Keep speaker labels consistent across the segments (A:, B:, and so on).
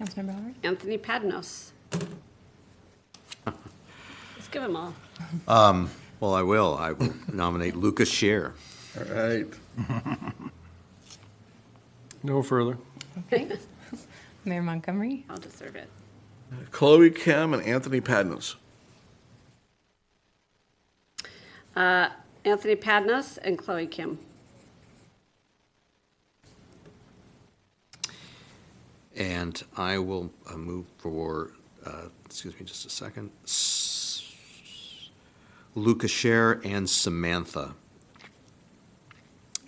A: Councilmember Howard?
B: Anthony Padnos. Let's give him all.
C: Well, I will. I will nominate Lucas Scher.
D: All right.
E: No further.
B: Okay,
A: Mayor Montgomery?
B: I'll deserve it.
D: Chloe Kim and Anthony Padnos.
B: Anthony Padnos and Chloe Kim.
C: And I will uh, move for, uh, excuse me just a second, S- Lucas Scher and Samantha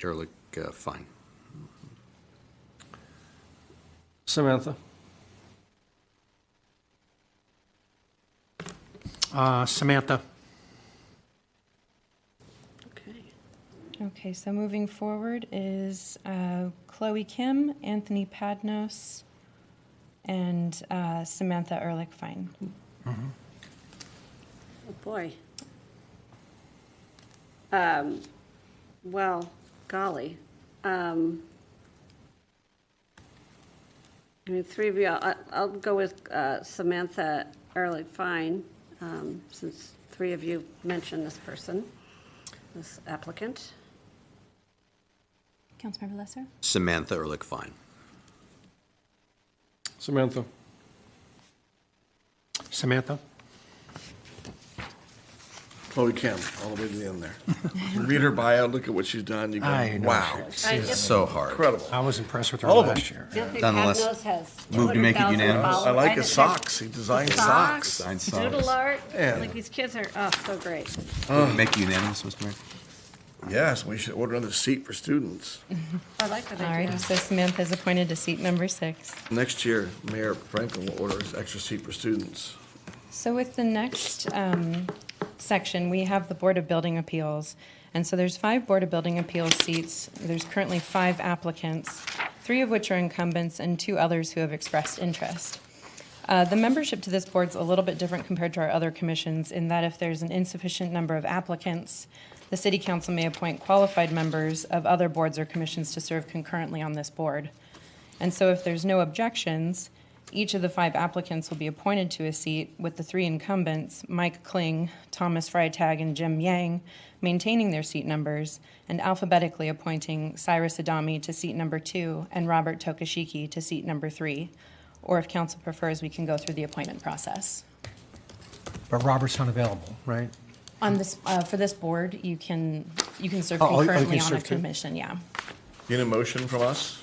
C: Ehrlich uh, Fine.
E: Samantha.
F: Uh, Samantha.
B: Okay.
A: Okay, so moving forward is uh, Chloe Kim, Anthony Padnos, and uh, Samantha Ehrlich Fine.
B: Oh, boy. Um, well, golly. Um, I mean, three of you, I, I'll go with uh, Samantha Ehrlich Fine, um, since three of you mentioned this person, this applicant.
A: Councilmember Lesser?
C: Samantha Ehrlich Fine.
E: Samantha.
F: Samantha.
D: Chloe Kim, all the way to the end there. Read her bio, look at what she's done. You go,
F: I know
D: wow.
C: So hard.
D: Incredible.
F: I was impressed with her
D: All of
F: last
D: them.
F: year.
B: Anthony
C: Nonetheless,
B: Padnos has
C: move to make it
B: 200,000
C: unanimous.
B: followers.
D: I like
B: know-
D: his socks. He designed socks.
C: Sign
B: Doodle
C: socks.
B: art,
D: Yeah.
B: like these kids are, oh, so great.
C: Make you unanimous, Mr. Mayor?
D: Yes, we should order another seat for students.
B: I like that
A: All righty,
B: idea.
A: so Samantha is appointed to seat number six.
D: Next year, Mayor Franklin will order his extra seat for students.
A: So with the next um, section, we have the Board of Building Appeals. And so there's five Board of Building Appeals seats. There's currently five applicants, three of which are incumbents and two others who have expressed interest. Uh, The membership to this board's a little bit different compared to our other commissions in that if there's an insufficient number of applicants, the city council may appoint qualified members of other boards or commissions to serve concurrently on this board. And so if there's no objections, each of the five applicants will be appointed to a seat with the three incumbents, Mike Kling, Thomas Freitag, and Jim Yang, maintaining their seat numbers and alphabetically appointing Cyrus Adami to seat number two and Robert Tokashiki to seat number three. Or if council prefers, we can go through the appointment process.
F: But Robert's not available, right?
A: On this, uh, for this board, you can, you can serve
F: Oh, oh, you
A: concurrently
F: can
A: on a
F: serve too?
A: commission, yeah.
D: You need a motion from us?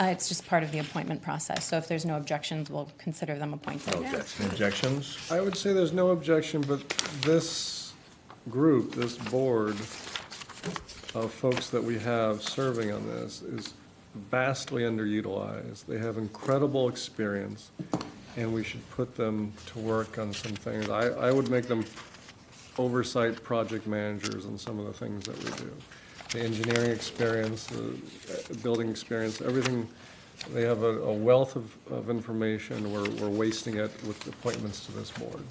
A: Uh, It's just part of the appointment process, so if there's no objections, we'll consider them appointed.
D: Okay. Any Objections?
E: I would say there's no objection, but this group, this board of folks that we have serving on this is vastly underutilized. They have incredible experience, and we should put them to work on some things. I, I would make them oversight project managers on some of the things that we do. The engineering experience, the uh, building experience, everything, they have a a wealth of, of information. We're, we're wasting it with appointments to this board,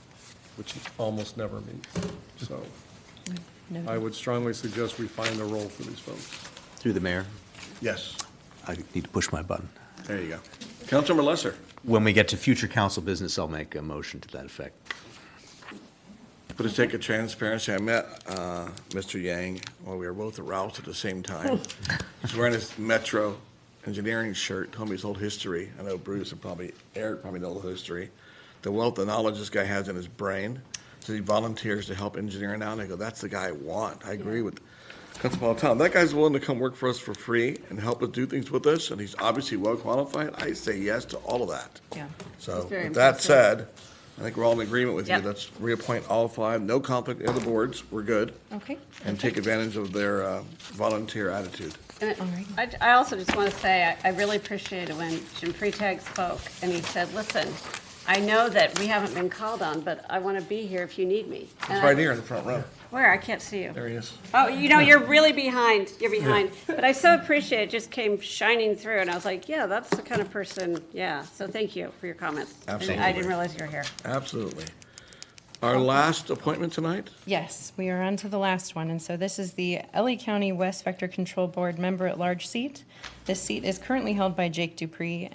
E: which almost never meet. So
A: No-
E: I would strongly suggest we find a role for these folks.
C: Through the mayor.
D: Yes.
C: I need to push my button.
D: There you go. Councilmember Lesser.
C: When we get to future council business, I'll make a motion to that effect.
D: For the sake of transparency, I met uh, Mr. Yang while we were both at Ralph's at the same time. He's wearing his Metro engineering shirt, told me his whole history. I know Bruce and probably Eric probably know the history. The wealth of knowledge this guy has in his brain. So he volunteers to help engineering out. And I go, that's the guy I want. I agree with Councilman Tom. That guy's willing to come work for us for free and help us do things with us. And he's obviously well qualified. I say yes to all of that.
A: Yeah.
D: So
B: It's very
D: with that
B: impressive.
D: said, I think we're all in agreement with you.
B: Yep.
D: Let's reappoint all five, no conflict of the boards, we're good.
A: Okay.
D: And take advantage of their uh, volunteer attitude.
B: And it-
A: Alrighty.
B: I, I also just want to say, I, I really appreciated when Jim Freitag spoke, and he said, listen, I know that we haven't been called on, but I want to be here if you need me. And I-
D: It's right here in the front row.
B: Where? I can't see you.
D: There he is.
B: Oh, you know, you're really behind, you're behind. But I so appreciate it, just came shining through, and I was like, yeah, that's the kind of person, yeah. So thank you for your comments. I didn't- I
D: Absolutely.
B: didn't realize you were here.
D: Absolutely. Our last appointment tonight?
A: Yes, we are on to the last one, and so this is the LA County West Vector Control Board Member-at-Large seat. This seat is currently held by Jake Dupree,